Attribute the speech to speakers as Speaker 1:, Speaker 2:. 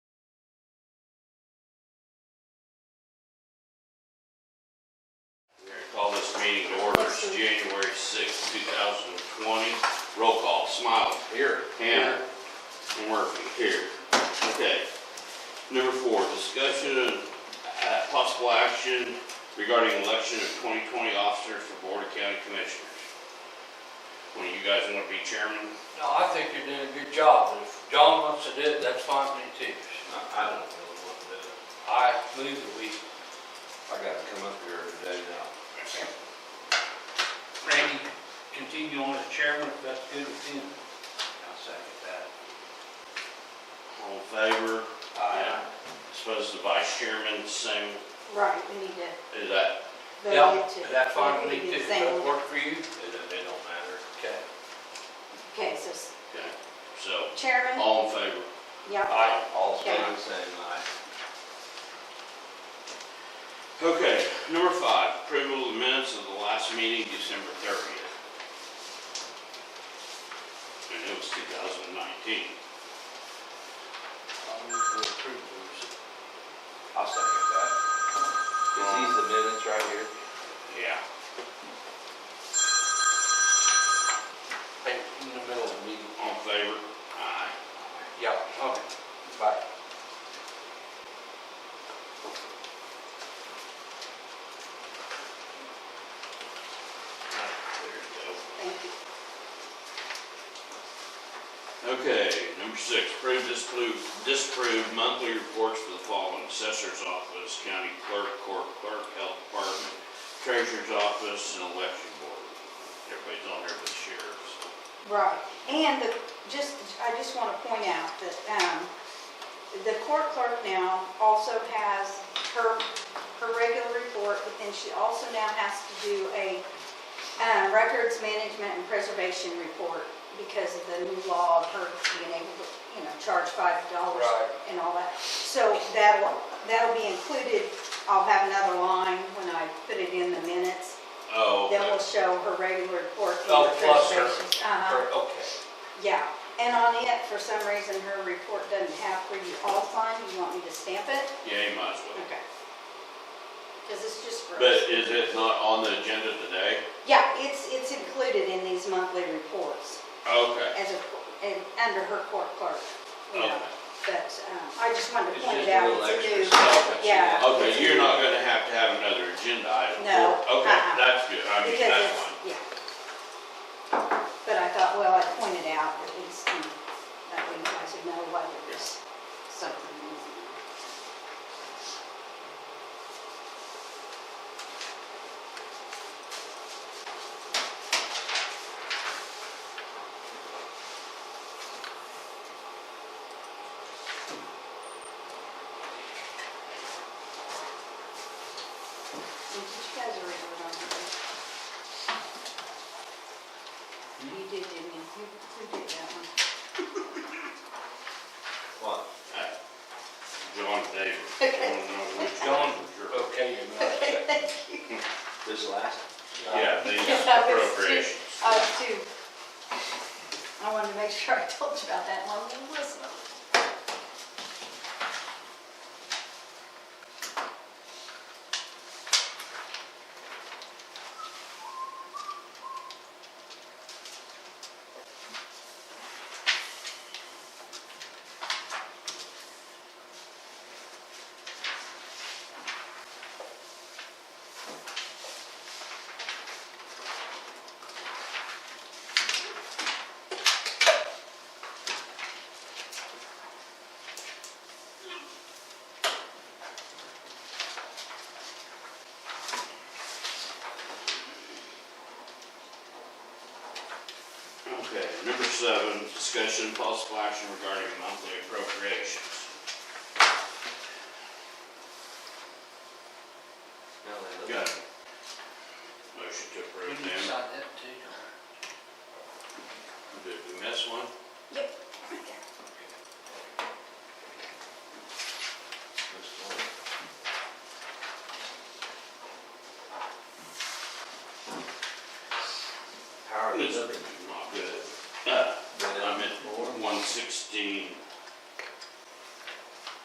Speaker 1: meeting to order, it's January sixth, two thousand and twenty. Roll call, Smiley. Here. Tanner. Murphy, here. Okay. Number four, discussion and uh, possible action regarding election of twenty twenty officers for Board of County Commissioners. One of you guys wanna be chairman?
Speaker 2: No, I think you're doing a good job, and if John wants to do it, that's fine with me too.
Speaker 3: I don't really want to do it.
Speaker 2: I move that we,
Speaker 3: I gotta come up here every day now.
Speaker 2: Randy, continue on as chairman, if that's good with him.
Speaker 3: I'll second that.
Speaker 1: All in favor?
Speaker 2: Aye.
Speaker 1: Suppose the vice chairman, same,
Speaker 4: Right, we need to
Speaker 1: is that,
Speaker 4: vote it
Speaker 2: Yeah,
Speaker 4: to.
Speaker 2: that's fine with
Speaker 4: we
Speaker 2: me
Speaker 4: need
Speaker 2: too,
Speaker 4: to say-
Speaker 2: that work for you?
Speaker 3: It, it don't matter.
Speaker 2: Okay.
Speaker 4: Okay, so s-
Speaker 1: okay, so,
Speaker 4: chairman,
Speaker 1: all in favor?
Speaker 4: yeah,
Speaker 1: Aye.
Speaker 3: All
Speaker 4: Okay.
Speaker 3: same, same, aye.
Speaker 1: Okay, number five, approval of the minutes of the last meeting, December thirtieth. And it was two thousand nineteen.
Speaker 2: I'll move to approve those.
Speaker 3: I'll second that. Is these the minutes right here?
Speaker 1: Yeah.
Speaker 2: Hey, in the middle of the meeting.
Speaker 1: All in favor? Aye.
Speaker 2: Yeah, okay, bye.
Speaker 1: There
Speaker 4: thank you.
Speaker 1: you go. Okay, number six, approve, disapprove, disapprove monthly reports for the following assessor's office, county clerk, court clerk, health department, treasurer's office, and election board. Everybody's on there but the sheriff, so.
Speaker 4: Right, and the, just, I just want to point out that, um, the court clerk now also has her, her regular report, but then she also now has to do a, um, records management and preservation report because of the new law of her being able to, you know, charge five dollars
Speaker 2: Right.
Speaker 4: and all that. So that'll, that'll be included, I'll have another line when I put it in the minutes,
Speaker 1: Oh,
Speaker 4: that
Speaker 1: okay.
Speaker 4: will show her regular report. and her
Speaker 2: Oh, plus her-
Speaker 4: preservation. Uh-huh.
Speaker 2: Or- Okay.
Speaker 4: Yeah, and on it, for some reason, her report doesn't have where you all sign, you want me to stamp it?
Speaker 1: yeah, you might as well.
Speaker 4: Okay. Because it's just for us.
Speaker 1: But is it not on the agenda today?
Speaker 4: Yeah, it's, it's included in these monthly reports
Speaker 1: Okay.
Speaker 4: as a, and under her court clerk. you know.
Speaker 1: Okay.
Speaker 4: But, um, I just wanted to
Speaker 3: It's
Speaker 4: point it
Speaker 3: just a
Speaker 4: out,
Speaker 3: little extra
Speaker 4: it's a
Speaker 3: stuff
Speaker 4: new,
Speaker 3: that she
Speaker 4: yeah.
Speaker 3: has.
Speaker 1: Okay, you're not gonna have to have another agenda item?
Speaker 4: No,
Speaker 1: for- Okay,
Speaker 4: uh-uh.
Speaker 1: that's good, I mean,
Speaker 4: Because
Speaker 1: that's
Speaker 4: it's,
Speaker 1: fine.
Speaker 4: yeah. But I thought, well, I pointed out at least, um, that way you guys would know whether there's something. Did you guys already vote on that? You did, didn't you? Who, who did that one?
Speaker 3: What?
Speaker 1: Uh, John Davis. I
Speaker 4: Okay.
Speaker 1: don't know which
Speaker 2: John,
Speaker 1: one for sure.
Speaker 2: okay, you're not second.
Speaker 3: This last?
Speaker 1: Yeah, these
Speaker 4: Yeah, I was too-
Speaker 1: appropriations.
Speaker 4: I was too, Oh, I wanted to make sure I told you about that one, uh, we listened.
Speaker 1: Okay, number seven, discussion and possible action regarding monthly appropriations.
Speaker 3: No, they
Speaker 1: Got
Speaker 3: look.
Speaker 1: it. Motion to
Speaker 2: You
Speaker 1: approve
Speaker 2: need to
Speaker 1: them.
Speaker 2: sign that too.
Speaker 1: Did we miss one?
Speaker 4: Yep.
Speaker 3: How are they looking?
Speaker 1: Uh,